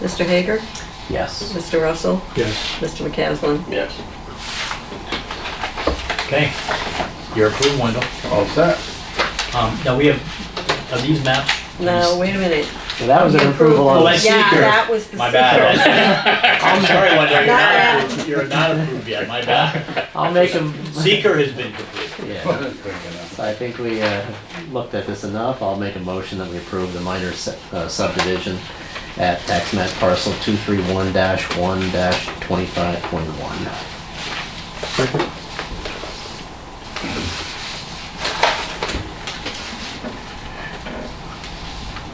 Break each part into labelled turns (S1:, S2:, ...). S1: Mr. Hager?
S2: Yes.
S1: Mr. Russell?
S3: Yes.
S1: Mr. McCaslin?
S4: Yes.
S2: Okay, you're approved, Wendell.
S3: All set.
S2: Um, now we have, are these maps?
S1: No, wait a minute.
S2: That was an approval Oh,
S1: Yeah,
S2: on-
S1: that
S2: that's seeker.
S1: was the seeker.
S2: My bad. I'm sorry, Wendell, you're
S1: Not
S2: not approved, you're not approved yet, my bad.
S5: I'll make him.
S2: Seeker has been completed.
S5: Yeah, so I think we uh, looked at this enough. I'll make a motion that we approve the minor se- uh, subdivision at tax map parcel 231-1-25.1.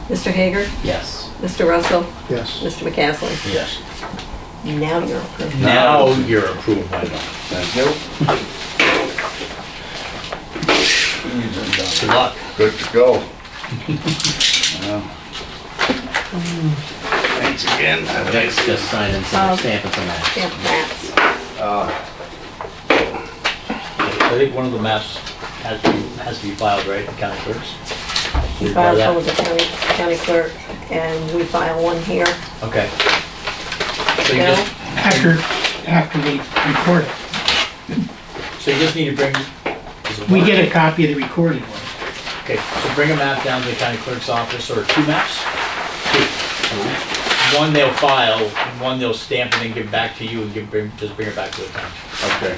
S1: Mr. Hager?
S5: Yes.
S1: Mr. Russell?
S3: Yes.
S1: Mr. McCaslin?
S2: Yes.
S1: Now you're approved.
S2: Now you're approved, Wendell.
S4: Thank you.
S2: Good luck.
S3: Good to go.
S4: Thanks again. Have a nice
S5: Just
S4: day.
S5: just sign and send
S1: Um,
S5: a stamp and some that.
S1: Yeah, that's.
S2: I think one of the maps has to, has to be filed, right, in county clerks?
S1: He files one with the county, county clerk, and we file one here.
S2: Okay. So you
S1: Bill?
S2: just,
S6: after, after we record it.
S2: so you just need to bring. is it
S6: We
S2: one?
S6: get a copy of the recorded one.
S2: Okay, so bring a map down to the county clerk's office, or two maps? Two. One they'll file, and one they'll stamp and then give back to you and give, bring, just bring it back to the town.
S4: Okay.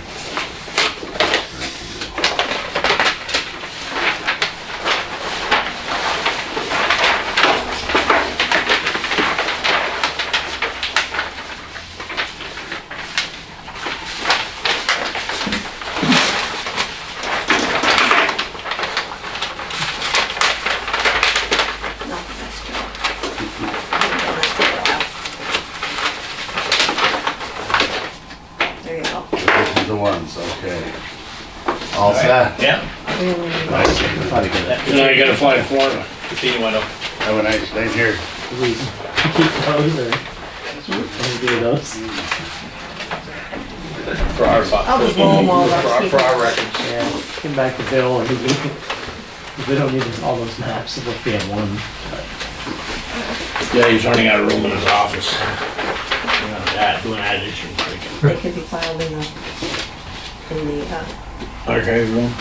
S1: No, that's true. There you go.
S4: This is the ones, okay.
S3: All set.
S4: Yeah.
S1: Mm,
S5: Probably good.
S4: So now you gotta fly to Florida.
S2: See you, Wendell.
S4: Have a nice day here.
S5: Do we keep those or? Can we do those?
S4: For our, for
S1: I'll just roll them all up.
S4: our, for our records.
S5: Yeah, came back to Bill and he, we don't need all those maps, we'll be at one.
S4: Yeah, he's running out of room in his office.
S2: Yeah, doing that issue, freaking.
S1: They could be filed in the, in the, uh,
S4: Okay, room.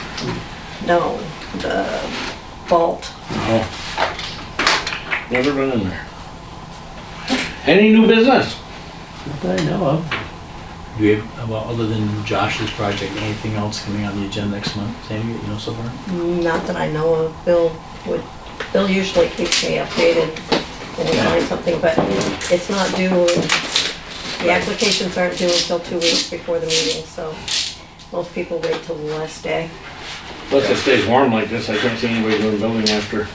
S1: no, the vault.
S4: Never been in there. Any new business?
S5: Not that I know of.
S2: Do you, have- well, other than Josh's project, anything else coming on the agenda next month, Sandy, you know so far?
S1: Not that I know of. Bill would, Bill usually keeps me updated when we find something, but it's not due, the applications aren't due until two weeks before the meeting, so most people wait till the last day.
S4: Plus it stays warm like this, I can't see anybody doing building after.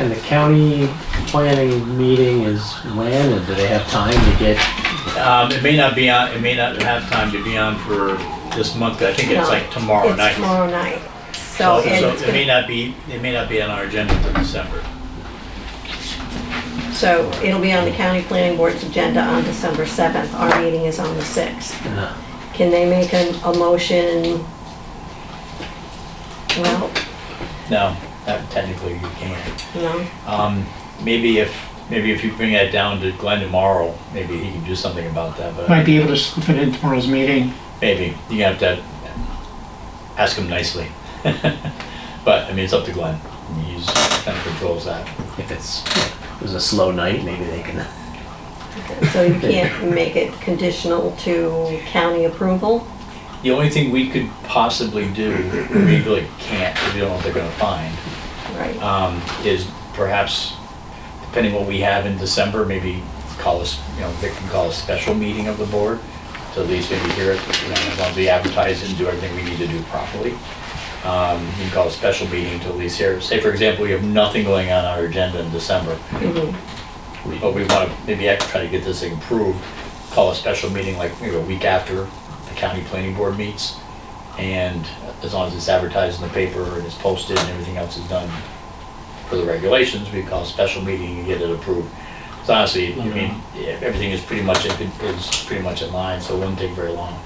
S5: And the county planning meeting is when, and do they have time to get,
S2: Um, it may not be on, it may not have time to be on for this month, but I think it's
S1: No,
S2: like tomorrow
S1: It's
S2: night.
S1: tomorrow night. So, and
S2: So
S1: it's
S2: it may
S1: gonna-
S2: not be, it may not be on our agenda for December.
S1: so it'll be on the county planning board's agenda on December 7th. Our meeting is on the 6th.
S5: uh,
S1: Can they make a, a motion? Well,
S2: No, that technically you can't.
S1: no,
S2: Um, maybe if, maybe if you bring that down to Glenn tomorrow, maybe he can do something about that,
S6: Might
S2: but
S6: be able to slip it in tomorrow's meeting.
S2: maybe, you have to ask him nicely. But, I mean, it's up to Glenn, he's, kind of controls that.
S5: if it's, it was a slow night, maybe they can,
S1: so you can't make it conditional to county approval?
S2: The only thing we could possibly do, we really can't, we don't know what they're gonna find,
S1: Right,
S2: um, is perhaps, depending what we have in December, maybe call us, you know, they can call a special meeting of the board, to at least maybe hear it, you know, as long as we advertise and do everything we need to do properly. Um, you can call a special meeting to at least hear, say, for example, we have nothing going on our agenda in December,
S1: Mhm.
S2: but we want to maybe act- try to get this thing approved, call a special meeting like maybe a week after the county planning board meets. And as long as it's advertised in the paper and it's posted and everything else is done for the regulations, we call a special meeting and get it approved. So honestly, I mean, yeah, everything is pretty much, in- is pretty much in line, so it wouldn't take very long.